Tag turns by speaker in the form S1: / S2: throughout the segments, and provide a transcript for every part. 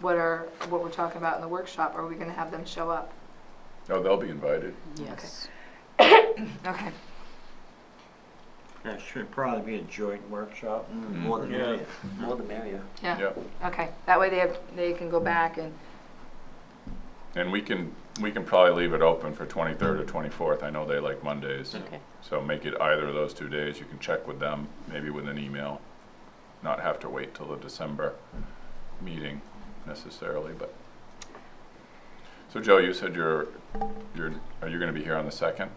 S1: what are, what we're talking about in the workshop? Are we gonna have them show up?
S2: No, Oh, they'll be invited.
S3: Yes.
S1: Okay.
S4: That should probably be a joint workshop.
S2: Mm.
S4: the
S5: Yeah.
S4: merrier.
S5: More the merrier.
S1: Yeah,
S2: Yeah,
S1: okay. That way they have, they can go back and,
S2: and we can, we can probably leave it open for 23rd or 24th. I know they like Mondays.
S3: Okay.
S2: So make it either of those two days. You can check with them, maybe with an email. Not have to wait till the December meeting necessarily, but. So Joe, you said you're, you're, are you gonna be here on the second?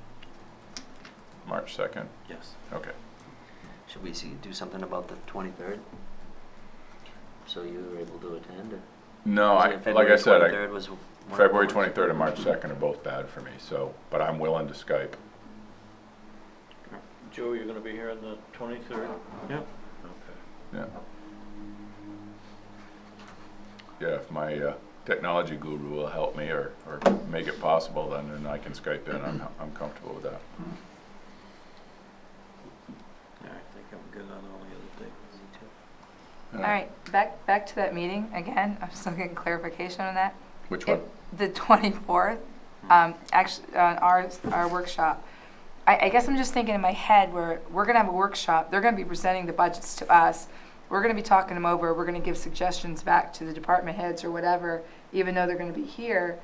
S2: March second?
S5: Yes.
S2: Okay.
S5: Should we see, do something about the twenty-third? So you were able to attend? or-
S2: No, Oh,
S5: Was
S2: I,
S5: it
S2: like I
S5: February
S2: said, I,
S5: 23rd was one of the
S2: February
S5: ones?
S2: twenty-third and March second are both bad for me, so, but I'm willing to Skype.
S6: Joe, you're gonna be here on the twenty-third?
S4: Yep.
S2: Yeah. Yeah, if my uh, technology guru will help me or, or make it possible, then, then I can Skype in. I'm, I'm comfortable with that.
S4: Yeah, I think I'm good on all the other things.
S1: all right, back, back to that meeting again. I'm still getting clarification on that.
S2: Which
S1: It-
S2: one?
S1: The 24th, um, actually, on our, our workshop. I, I guess I'm just thinking in my head where we're gonna have a workshop, they're gonna be presenting the budgets to us. We're gonna be talking them over, we're gonna give suggestions back to the department heads or whatever, even though they're gonna be here.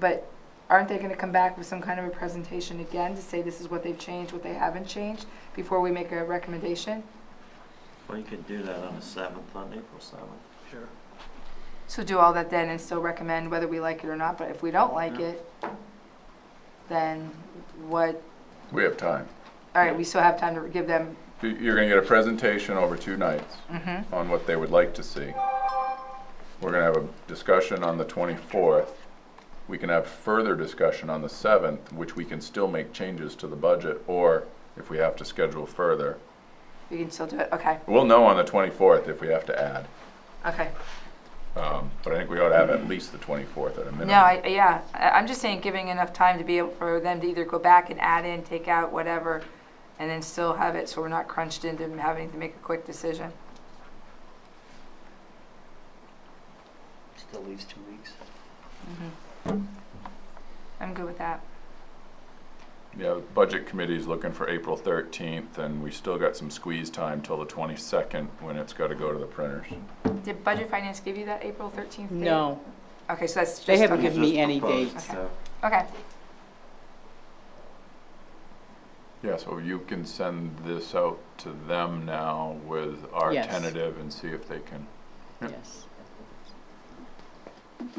S1: But aren't they gonna come back with some kind of a presentation again to say this is what they've changed, what they haven't changed, before we make a recommendation?
S4: Well, you could do that on the seventh, on April seventh. Sure.
S1: So do all that then and still recommend whether we like it or not, but if we don't like
S4: Yeah.
S1: it, then what,
S2: We have time.
S1: all right, we still have time to give them,
S2: You- You're gonna get a presentation over two nights
S3: Mm-hmm.
S1: mhm.
S2: on what they would like to see. We're gonna have a discussion on the twenty-fourth. We can have further discussion on the seventh, which we can still make changes to the budget, or if we have to schedule further.
S1: we can still do it, okay,
S2: We'll know on the twenty-fourth if we have to add.
S1: okay.
S2: Um, But I think we ought to have at least the 24th at a minimum.
S1: No, I, yeah, I, I'm just saying giving enough time to be able for them to either go back and add in, take out, whatever, and then still have it, so we're not crunched into having to make a quick decision.
S5: Still leaves two weeks.
S3: Mm-hmm.
S1: Mhm. I'm good with that,
S2: Yeah, the Budget Committee's looking for April 13th, and we still got some squeeze time till the 22nd, when it's got to go to the printers.
S1: did Budget Finance give you that April thirteenth date?
S3: No,
S1: Okay, so that's just.
S3: they
S1: on-
S3: haven't given me any dates.
S1: Okay. Okay,
S2: Yeah, so you can send this out to them now with our
S3: Yes.
S2: tentative and see if they can, Yep.
S3: Yes.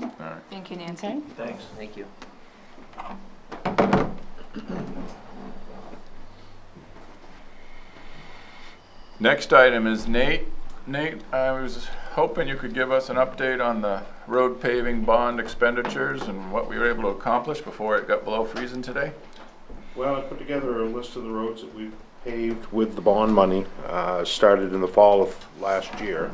S2: all right.
S1: thank you, Nancy.
S3: Okay.
S4: Thanks.
S5: Thank you.
S2: Next item is Nate. Nate, I was hoping you could give us an update on the road paving bond expenditures and what we were able to accomplish before it got below freezing today.
S7: Well, I put together a list of the roads that we've paved with the bond money, uh, started in the fall of last year.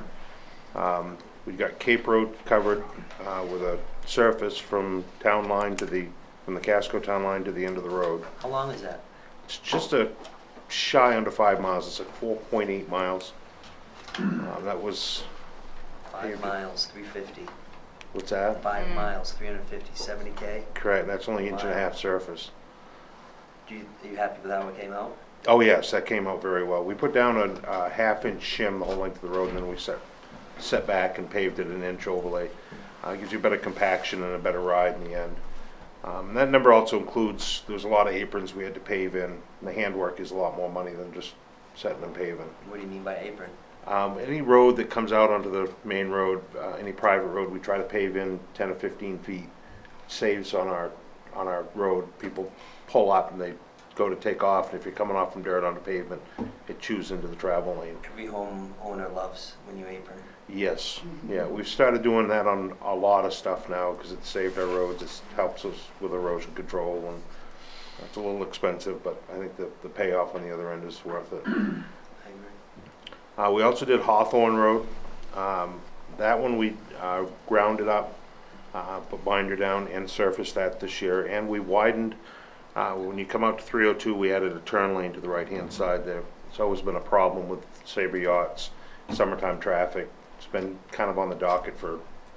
S7: Um, we got Cape Road covered, uh, with a surface from town line to the, from the Casco town line to the end of the road.
S5: How long is that?
S7: It's just a shy under five miles, it's at four point eight miles. Uh, that was,
S5: Five
S7: Paved it.
S5: miles, three fifty.
S7: what's that?
S5: Five
S1: Mm.
S5: miles, 350, 70 K.
S7: Correct, that's only inch and a half surface.
S5: Do you, are you happy with how it came out?
S7: Oh, yes, that came out very well. We put down a, a half-inch shim the whole length of the road, and then we set, set back and paved it an inch overlay. Uh, gives you better compaction and a better ride in the end. Um, and that number also includes, there's a lot of aprons we had to pave in. and The handwork is a lot more money than just setting and paving.
S5: What do you mean by apron?
S7: Um, any road that comes out onto the main road, uh, any private road, we try to pave in ten or fifteen feet. Saves on our, on our road, people pull up and they go to take off, and if you're coming off from dirt onto pavement, it chews into the travel lane.
S5: Every homeowner loves when you apron.
S7: Yes, yeah, we've started doing that on a lot of stuff now, cause it saved our roads, it helps us with erosion control, and it's a little expensive, but I think the, the payoff on the other end is worth it.
S5: I agree.
S7: Uh, we also did Hawthorne Road. Um, that one we, uh, grounded up, uh, put binder down and surfaced that this year. And we widened, uh, when you come out to three oh two, we added a turn lane to the right-hand side there. It's always been a problem with Sabre yachts, summertime traffic. It's been kind of on the docket for